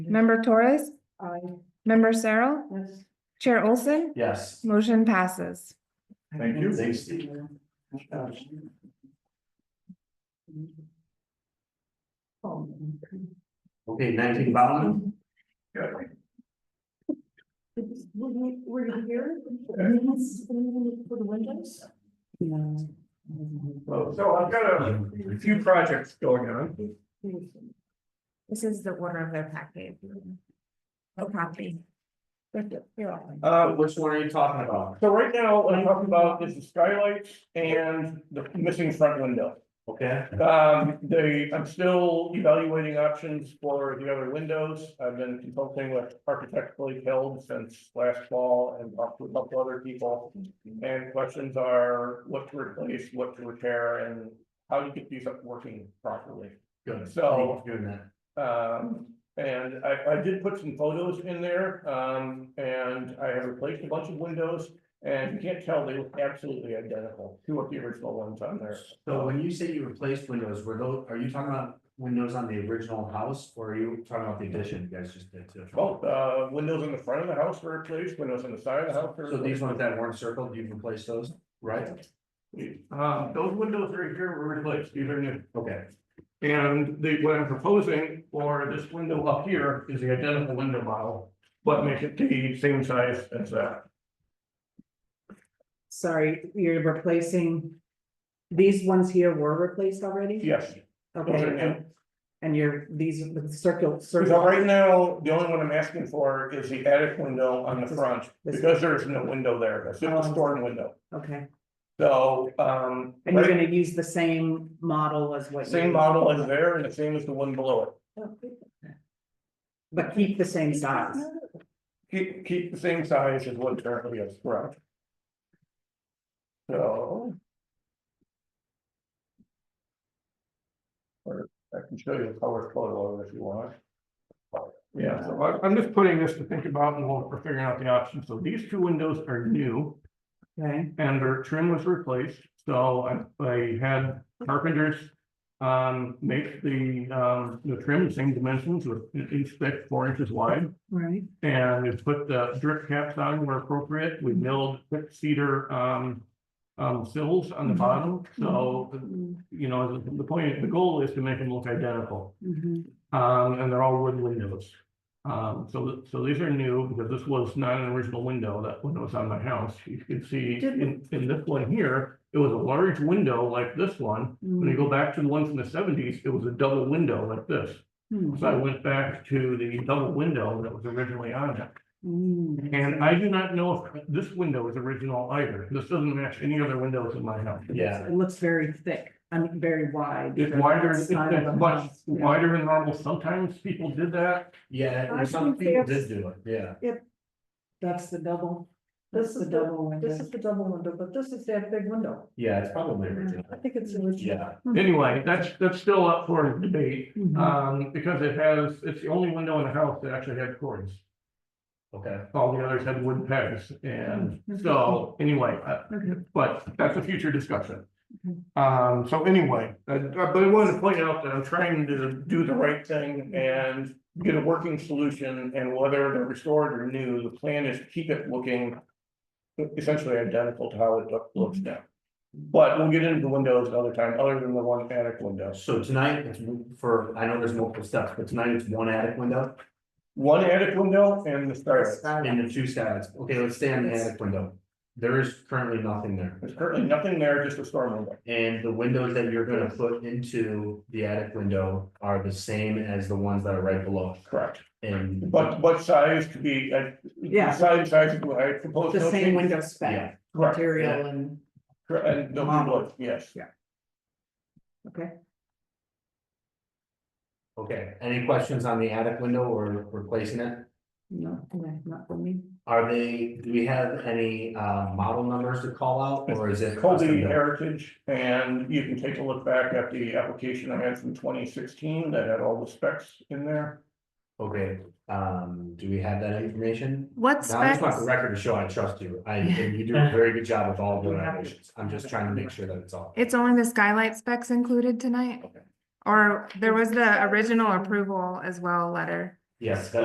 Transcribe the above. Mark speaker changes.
Speaker 1: Member Torres?
Speaker 2: Aye.
Speaker 1: Member Sarah?
Speaker 2: Yes.
Speaker 1: Chair Olson?
Speaker 3: Yes.
Speaker 1: Motion passes.
Speaker 3: Thank you.
Speaker 2: Thanks, Steve.
Speaker 3: Okay, nineteen Bowman.
Speaker 2: Were you, were you here? For the windows?
Speaker 4: So I've got a few projects going on.
Speaker 1: This is the order of their package. Oh, copy.
Speaker 4: Uh,
Speaker 3: Which one are you talking about?
Speaker 4: so right now, what I'm talking about is the skylights and the missing front window.
Speaker 3: Okay,
Speaker 4: Um, they, I'm still evaluating options for the other windows. I've been consulting with architecturally held since last fall and talked to a couple other people. And questions are what to replace, what to repair, and how to get these up working properly.
Speaker 3: good.
Speaker 4: So-
Speaker 3: Thank you for Doing that.
Speaker 4: Um, and I, I did put some photos in there, um, and I have replaced a bunch of windows. And you can't tell, they look absolutely identical to what the original ones on there.
Speaker 3: So when you say you replaced windows, were those, are you talking about windows on the original house or are you talking about the addition you guys just did too?
Speaker 4: Both, uh, windows in the front of the house were replaced, windows on the side of the house. were
Speaker 3: So these
Speaker 4: replaced.
Speaker 3: ones that weren't circled, you've replaced those, right?
Speaker 4: Um, those windows right here were replaced, these are new.
Speaker 3: Okay,
Speaker 4: And the, what I'm proposing for this window up here is the identical window model, but make it the same size as that.
Speaker 2: Sorry, you're replacing, these ones here were replaced already?
Speaker 4: Yes.
Speaker 2: Okay, and you're, these, are the circle,
Speaker 4: So
Speaker 2: circle,
Speaker 4: right now, the only one I'm asking for is the attic window on the front, because there is no window there, that's just
Speaker 2: Um,
Speaker 4: a storm window.
Speaker 2: okay,
Speaker 4: So, um,
Speaker 2: and you're gonna use the same model as what? you-
Speaker 4: same model as there and the same as the one below it.
Speaker 2: But keep the same size,
Speaker 4: Keep, keep the same size as what currently is, correct? So. Or I can show you the color photo of it if you want. Yeah, so I- I'm just putting this to think about and we'll- we're figuring out the options. So these two windows are new.
Speaker 2: okay?
Speaker 4: and their trim was replaced, so I, I had carpenters. Um, make the, um, the trim the same dimensions with each thick, four inches wide.
Speaker 2: Right.
Speaker 4: And we put the drip caps on where appropriate, we milled thick cedar, um. Um, sills on the bottom, so,
Speaker 2: Mm-hmm.
Speaker 4: you know, the, the point, the goal is to make them look identical. Um, and they're all wood windows. Um, so, so these are new because this was not an original window, that window was on my house. You can see in, in this one here, it was a large window like this one. When you go back to the ones in the seventies, it was a double window like this.
Speaker 2: Mm-hmm.
Speaker 4: So I went back to the double window that was originally on it.
Speaker 2: Mm-hmm.
Speaker 4: And I do not know if this window is original either. This doesn't match any other windows in my house.
Speaker 3: Yeah.
Speaker 2: It looks very thick, I mean, very wide.
Speaker 4: It's wider, it's
Speaker 2: Side of the
Speaker 4: it's much
Speaker 2: house, yeah.
Speaker 4: wider than normal. Sometimes people did that.
Speaker 3: yeah,
Speaker 5: I
Speaker 3: and some
Speaker 5: think
Speaker 3: people
Speaker 5: that's-
Speaker 3: did do it, yeah.
Speaker 2: That's the double.
Speaker 5: This
Speaker 2: That's
Speaker 5: is
Speaker 2: the
Speaker 5: the-
Speaker 2: double
Speaker 5: This
Speaker 2: window.
Speaker 5: is the double window, but this is that big window.
Speaker 3: Yeah, it's probably original,
Speaker 5: I think it's original.
Speaker 3: yeah.
Speaker 4: Anyway, that's, that's still up for debate,
Speaker 2: Mhm.
Speaker 4: um, because it has, it's the only window in the house that actually had cords.
Speaker 3: Okay,
Speaker 4: All the others had wooden pegs, and so, anyway, uh,
Speaker 2: Okay.
Speaker 4: but that's a future discussion.
Speaker 2: Okay.
Speaker 4: Um, so anyway, uh, uh, but I wanted to point out that I'm trying to do the right thing and get a working solution, and whether they're restored or new, the plan is to keep it looking essentially identical to how it loo- looks now. But we'll get into the windows another time, other than the one attic window.
Speaker 3: so tonight it's for, I know there's multiple steps, but tonight it's one attic window
Speaker 4: One attic window and the stair.
Speaker 3: and the two sides. Okay, let's stay on the attic window. There is currently nothing there.
Speaker 4: There's currently nothing there, just a storm window.
Speaker 3: And the windows that you're gonna put into the attic window are the same as the ones that are right below
Speaker 4: Correct.
Speaker 3: and.
Speaker 4: But what size to be, uh,
Speaker 2: Yeah.
Speaker 4: size, size, I propose.
Speaker 2: The
Speaker 4: no
Speaker 2: same
Speaker 4: change.
Speaker 2: window spec,
Speaker 3: Yeah.
Speaker 4: Correct.
Speaker 2: material and,
Speaker 4: Correct, And no
Speaker 2: Model.
Speaker 4: windows, yes.
Speaker 2: okay,
Speaker 3: Okay, any questions on the attic window or replacing it?
Speaker 2: no, okay, not for me.
Speaker 3: Are they, do we have any uh model numbers to call out or is it? custom
Speaker 4: Colby
Speaker 3: built?
Speaker 4: Heritage, and you can take a look back at the application I had from twenty sixteen that had all the specs in there.
Speaker 3: Okay, um, do we have that information?
Speaker 1: What
Speaker 3: Now, I just want the
Speaker 1: specs?
Speaker 3: record to show I trust you. I, and you do a very good job with all the renovations. I'm just trying to make sure that it's all.
Speaker 1: It's only the skylight specs included tonight?
Speaker 3: Okay.
Speaker 1: Or there was the original approval as well letter
Speaker 3: Yes, that